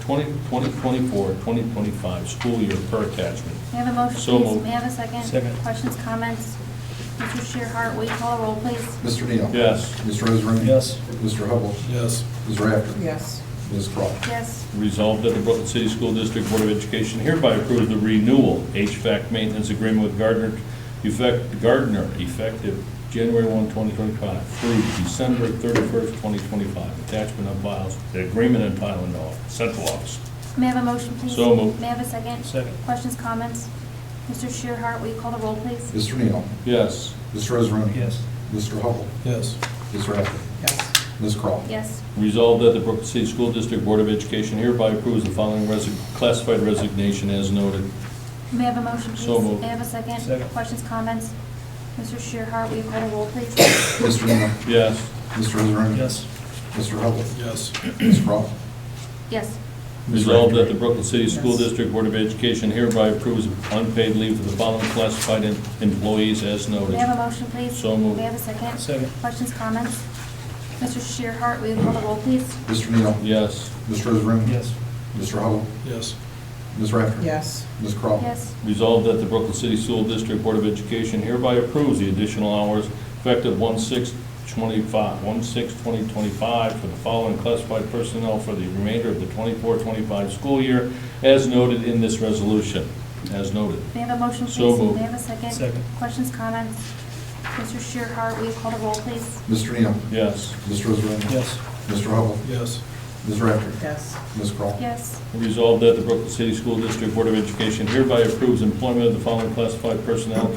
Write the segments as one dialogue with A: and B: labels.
A: 20 2024, 2025 school year per attachment.
B: May I have a motion,
A: So
B: please?
A: moved.
B: May I have a second?
C: Second.
B: Questions, comments? Mr. Shearhart, will you call a roll, please?
D: Mr. Neal?
A: Yes.
D: Mr. Israani?
C: Yes.
D: Mr. Hubble?
E: yes,
D: Ms. Rafter?
F: yes,
D: Ms. Crawl?
B: Yes.
A: Resolved that the Brooklyn City School District Board of Education hereby approves the renewal HVAC maintenance agreement with Gardner, effect, Gardner, effective January 1, 2025 through December 31st, 2025. Attachment of files, the agreement and file in the office- central office.
B: May I have a motion, please?
A: So moved.
B: May I have a second?
C: Second.
B: Questions, comments? Mr. Shearhart, will you call the roll, please?
D: Mr. Neal?
A: Yes.
D: Mr. Israani?
C: Yes.
D: Mr. Hubble?
E: yes,
D: Ms. Rafter?
F: yes,
D: Ms. Crawl?
B: Yes.
A: Resolved that the Brooklyn City School District Board of Education hereby approves the following resi- classified resignation as noted.
B: May I have a motion, please?
A: So moved.
B: May I have a second?
C: Second.
B: Questions, comments? Mr. Shearhart, will you call the roll, please?
D: Mr. Neal?
A: Yes.
D: Mr. Israani?
C: yes,
D: Mr. Hubble?
E: yes,
D: Ms. Crawl?
B: Yes.
D: Ms.
A: Resolved
D: Rafter?
A: that the Brooklyn City School
F: Yes.
A: District Board of Education hereby approves unpaid leave for the following classified em- employees as
B: May
A: noted.
B: I have a motion, please?
A: So moved.
B: May I have a second?
C: Second.
B: Questions, comments? Mr. Shearhart, will you call the roll, please?
D: Mr. Neal?
A: Yes.
D: Mr. Israani?
C: yes,
D: Mr. Hubble?
E: yes,
D: Ms. Rafter?
F: yes,
D: Ms. Crawl?
B: Yes.
A: Resolved that the Brooklyn City School District Board of Education hereby approves the additional hours effective 1/6/25, 1/6/2025 for the following classified personnel for the remainder of the 24-25 school year as noted in this resolution, as noted.
B: May I have a motion, please?
A: So moved.
B: May I have a second?
C: Second.
B: Questions, comments? Mr. Shearhart, will you call the roll, please?
D: Mr. Neal?
A: Yes.
D: Mr. Israani?
C: yes,
D: Mr. Hubble?
E: yes,
D: Ms. Rafter?
F: yes,
D: Ms. Crawl?
B: Yes.
A: Resolved that the Brooklyn City School District Board of Education hereby approves employment of the following classified personnel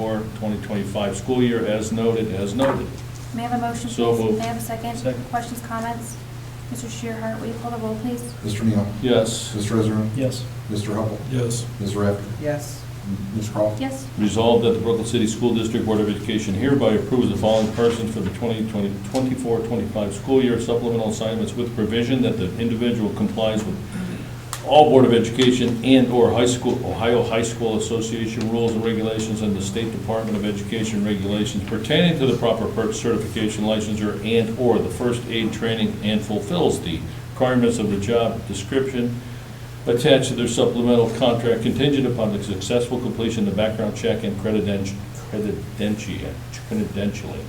A: 2024-2025 school year as noted, as noted.
B: May I have a motion, please?
A: So moved.
B: May I have a second?
C: Second.
B: Questions, comments? Mr. Shearhart, will you call the roll, please?
D: Mr. Neal?
A: Yes.
D: Mr. Israani?
C: yes,
D: Mr. Hubble?
E: yes,
D: Ms. Rafter?
F: yes,
D: Ms. Crawl?
B: Yes.
A: Resolved that the Brooklyn City School District Board of Education hereby approves the following persons for the 2024-25 school year supplemental assignments with provision that the individual complies with all Board of Education and/or high school, Ohio High School Association rules and regulations and the State Department of Education regulations pertaining to the proper purchase certification licensure and/or the first aid training and fulfills the requirements of the job description attached to their supplemental contract contingent upon the successful completion of the background check and credidenti- credentia, credentialing.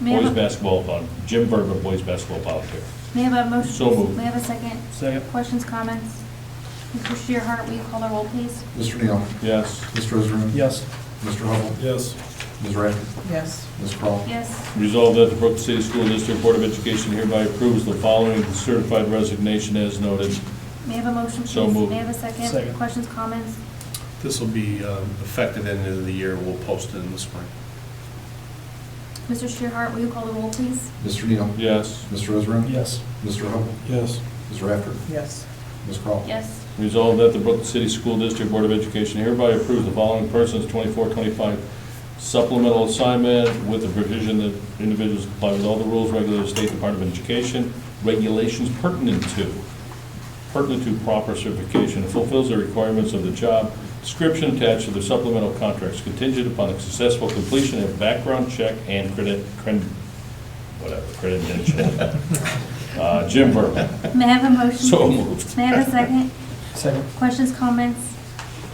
B: May I
A: Boys
B: have a-
A: basketball, vol- Jim Verba, boys basketball volunteer.
B: May I have a motion?
A: So
B: please?
A: moved.
B: May I have a second?
C: second,
B: Questions, comments? Mr. Shearhart, will you call the roll, please?
D: Mr. Neal?
A: Yes.
D: Mr. Israani?
C: yes,
D: Mr. Hubble?
E: yes,
D: Ms. Rafter?
F: yes,
D: Ms. Crawl?
B: Yes.
A: Resolved that the Brooklyn City School District Board of Education hereby approves the following certified resignation as noted.
B: May I have a motion, please?
A: So moved.
B: May I have a second?
C: Second.
B: Questions, comments?
G: This will be um, effective end of the year, we'll post it in the spring.
B: Mr. Shearhart, will you call the roll, please?
D: Mr. Neal?
A: Yes.
D: Mr. Israani?
C: yes,
D: Mr. Hubble?
E: yes,
D: Ms. Rafter?
F: yes,
D: Ms. Crawl?
B: Yes.
A: Resolved that the Brooklyn City School District Board of Education hereby approves the following persons 24-25 supplemental assignment with the provision that individuals comply with all the rules, regulated State Department of Education, regulations pertinent to, pertinent to proper certification, and fulfills the requirements of the job description attached to the supplemental contracts contingent upon the successful completion of background check and credit, cred- whatever, credential. Uh, Jim Verba.
B: May I have a motion?
A: So
B: please?
A: moved.
B: May I have a second?
C: second,
B: Questions, comments?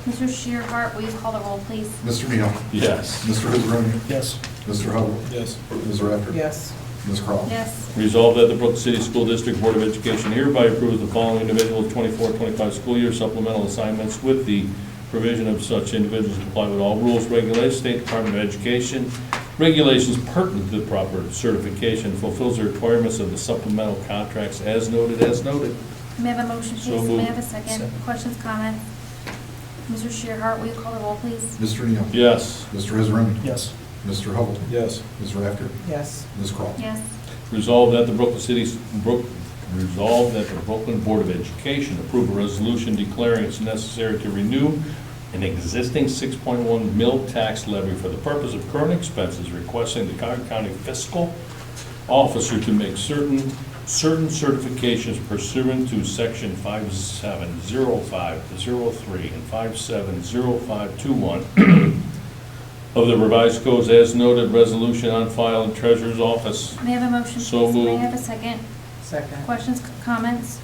B: Mr. Shearhart, will you call the roll, please?
D: Mr. Neal?
A: Yes.
D: Mr. Israani?
C: yes,
D: Mr. Hubble?
E: yes,
D: Ms. Rafter?
F: yes,
D: Ms. Crawl?
B: Yes.
A: Resolved that the Brooklyn City School District Board of Education hereby approves the following individuals 24-25 school year supplemental assignments with the provision of such individuals to comply with all rules, regulations, State Department of Education, regulations pertinent to the proper certification, fulfills the requirements of the supplemental contracts as noted, as noted.
B: May I have a motion, please?
A: So
B: May I
A: moved.
B: have a second?
C: Second.
B: Questions, comments? Mr. Shearhart, will you call the roll, please?
D: Mr. Neal?
A: Yes.
D: Mr. Israani?
C: yes,
D: Mr. Hubble?
E: yes,
D: Ms. Rafter?
F: yes,
D: Ms. Crawl?
B: Yes.
A: Resolved that the Brooklyn City, Brook, resolved that the Brooklyn Board of Education approve a resolution declaring it's necessary to renew an existing 6.1 mill tax levy for the purpose of current expenses, requesting the Cuyahoga County Fiscal Officer to make certain, certain certifications pursuant to Section 570503 and 570521 of the revised codes as noted, resolution on file in Treasurer's Office.
B: May I have a motion, please?
A: So
B: May I
A: moved.
B: have a second?
F: second,
B: Questions, c- comments?